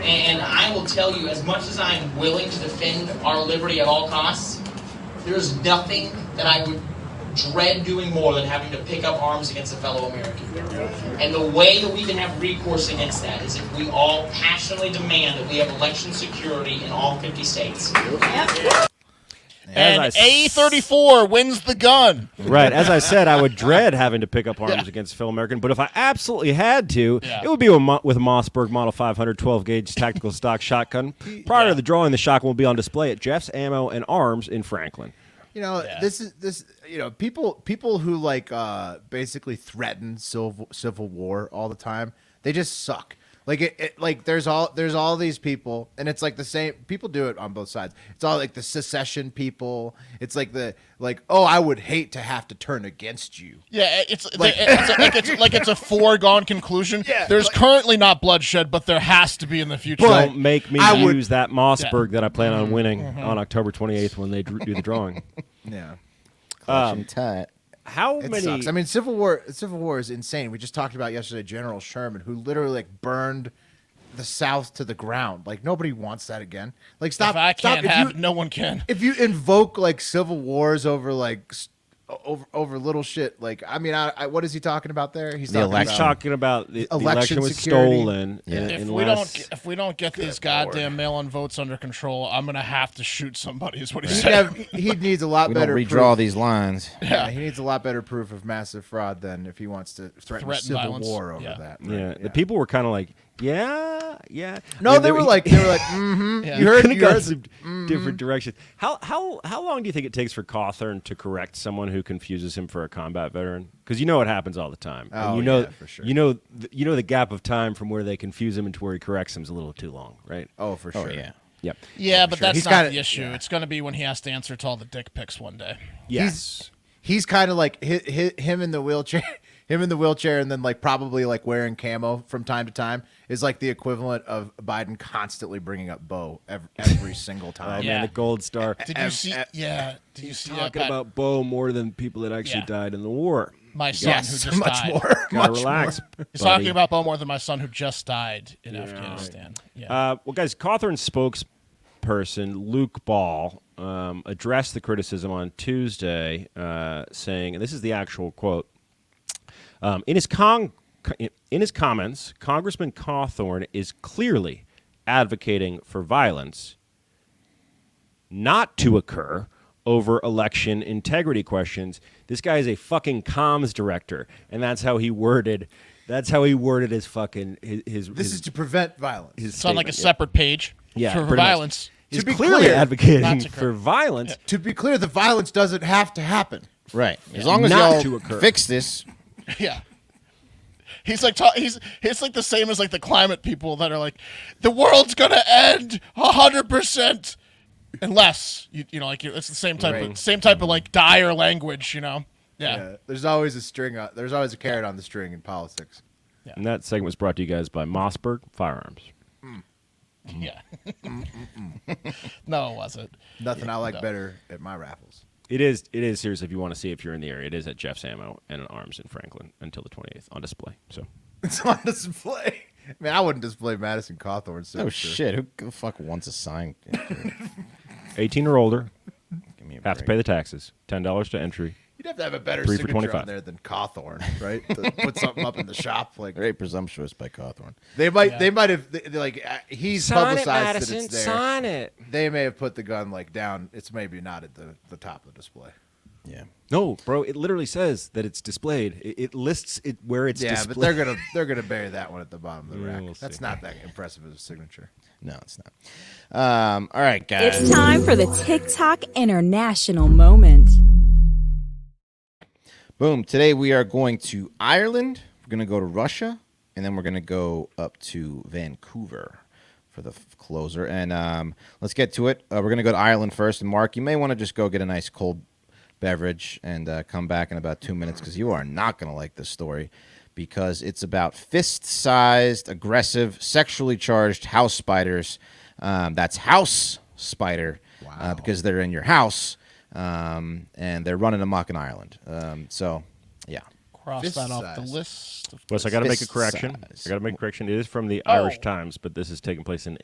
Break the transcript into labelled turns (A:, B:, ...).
A: And, and I will tell you, as much as I am willing to defend our liberty at all costs, there is nothing that I would dread doing more than having to pick up arms against a fellow American. And the way that we can have recourse against that is if we all passionately demand that we have election security in all 50 states.
B: As I
C: and
B: s-
C: A34 wins the gun.
B: Right. As I said, I would dread having to pick up arms against a fellow American, but if I absolutely had to,
C: Yeah.
B: it would be with, Mo- with a Mossberg Model 500 12 gauge tactical stock shotgun. Prior to the drawing, the shotgun will be on display at Jeff's Ammo and Arms in Franklin.
D: You know, this is this. You know, people people who like uh basically threaten civil civil war all the time. They just suck. Like it, it, like there's all there's all these people, and it's like the same. People do it on both sides. It's all like the secession people. It's like the like, oh, I would hate to have to turn against you.
C: Yeah, eh, it's like
D: Like-
C: it's, like it's like it's a foregone conclusion.
D: Yeah,
C: There's
D: like-
C: currently not bloodshed, but there has to be in the future.
D: But-
B: Don't make me
D: I would-
B: use that Mossberg that I plan on winning on October 28th when they dr- do the drawing.
D: Yeah,
E: Clutching tight.
B: How
D: it
B: many?
D: sucks. I mean, civil war civil war is insane. We just talked about yesterday General Sherman, who literally like burned the South to the ground. Like nobody wants that again. Like stop.
C: if I
D: stop.
C: can't
D: If
C: have,
D: you-
C: no one can.
D: if you invoke like civil wars over like s- over over little shit like i mean I, I what is he talking about there he's
E: The
D: talking
B: He's
E: election.
D: about
B: talking about the, the
D: Election
B: election was
D: security.
B: stolen.
E: Yeah.
B: and-
C: If we don't
B: unless-
C: get- if we don't get these goddamn mail-in votes under control, I'm gonna have to shoot somebody. Is what he
D: he'd
C: said.
D: have- he needs a lot
E: We don't
D: better
E: redraw
D: proof.
E: these lines.
D: yeah he needs a lot better proof of massive fraud than if he wants to threaten,
C: Threaten
D: civil
C: violence.
D: war over
C: Yeah.
D: that
B: yeah, the people were kind of like, yeah, yeah. I
D: no
B: mean,
D: they were
B: he-
D: like they were like mm-hmm
C: Yeah.
D: you heard,
B: Could've
D: you
B: gone
D: heard
B: some Mm-hmm. different directions. How how how long do you think it takes for Cawthorn to correct someone who confuses him for a combat veteran? Because you know it happens all the time. and
D: Oh,
B: you know,
D: yeah, for sure.
B: You know, th- you know the gap of time from where they confuse him and to where he corrects him is a little too long, right?
D: oh for sure
E: yeah.
B: Yep.
C: yeah, but
D: sure.
C: that's
D: He's
C: not
D: gotta-
C: the issue. It's gonna be when he has to answer to all the dick pics one day.
B: Yes.
D: he's kind of like hi hi him in the wheelchair him in the wheelchair and then like probably like wearing camo from time to time is like the equivalent of biden constantly bringing up bo every, every single
B: oh
D: time
C: Yeah.
B: man, the gold star.
C: Did you see?
D: eh,
C: Yeah. Did you see that
B: Talking
C: guy-
B: about Bo more than people that actually
C: Yeah.
B: died in the war.
C: my son who just
D: much
C: died?
D: more
B: Gotta relax.
C: He's
B: buddy.
C: talking about Bo more than my son who just died in Afghanistan. Yeah.
B: Uh, well, guys, Cawthorn's spokesperson, Luke Ball, um, addressed the criticism on Tuesday, uh, saying, and this is the actual quote um, in, his con- in his comments, Congressman Cawthorn is clearly advocating for violence not to occur over election integrity questions. This guy is a fucking comms director, and that's how he worded. That's how he worded his fucking his. his
D: this
B: his-
D: is to prevent violence
B: his
C: it's on like a
B: statement, yeah.
C: separate page
B: Yeah,
C: for
B: pretty much.
C: violence.
B: He's
D: To be
B: clearly
D: clear,
B: advocating
C: that's a
B: for
C: crime.
B: violence.
D: to be clear the violence doesn't have to happen
E: Right. As long as
B: Not
E: y'all
B: to occur.
E: fix this,
C: Yeah. He's like ta- he's he's like the same as like the climate people that are like, the world's gonna end hundred percent, unless you you know like you- it's the same type
D: Right.
C: of same type of like dire language you know yeah,
D: yeah. there's always a string on, there's always a carrot on the string in politics
B: And that segment was brought to you guys by Mossberg Firearms.
C: yeah, no it wasn't
D: nothing i like
C: no.
D: better at my raffles
B: It is it is serious if you want to see if you're in the area. It is at Jeff's Ammo and Arms in Franklin until the 28th on display. So
D: it's on display man i wouldn't display madison cawthorn's
E: oh
D: signature.
E: shit, who the fuck wants a sign? Give
B: 18 or older
E: me a
B: have to
E: break.
B: pay the taxes. Ten dollars to entry.
D: You'd have to have a better
B: Three for
D: signature
B: 25.
D: on there than Cawthorn, right? to put something up in the shop, like
E: Very presumptuous by Cawthorn.
D: they might,
C: Yeah.
D: they might have, they, they, like uh, he's publicized that it's there.
B: it.
D: They may have put the gun like down. It's maybe not at the, the top of the display.
E: Yeah.
B: No, bro, it literally says that it's displayed. It, it lists it where it's
D: yeah,
B: displayed.
D: but they're gonna they're gonna bury that one at the bottom of the
B: Yeah,
D: rack.
B: we'll
D: That's
B: see.
D: not that impressive as a signature.
E: No, it's not. Um, all right, guys.
F: It's time for the TikTok International Moment.
E: Boom. Today we are going to Ireland. We're going to go to Russia, and then we're going to go up to Vancouver for the f- closer. And um, let's get to it. Uh, we're going to go to Ireland first. And Mark, you may want to just go get a nice cold beverage and uh, come back in about two minutes because you are not going to like this story because it's about fist-sized, aggressive, sexually charged house spiders. Um, that's house spider uh, because they're in your house um, and they're running amok in Ireland. Um, so, yeah.
C: cross
D: Fist
C: that off the
D: size.
C: list of
B: Wes, I got to make a
E: Fist
B: correction.
E: size.
B: I got to make a correction. It is from the
C: Oh.
B: Irish Times, but this is taking place in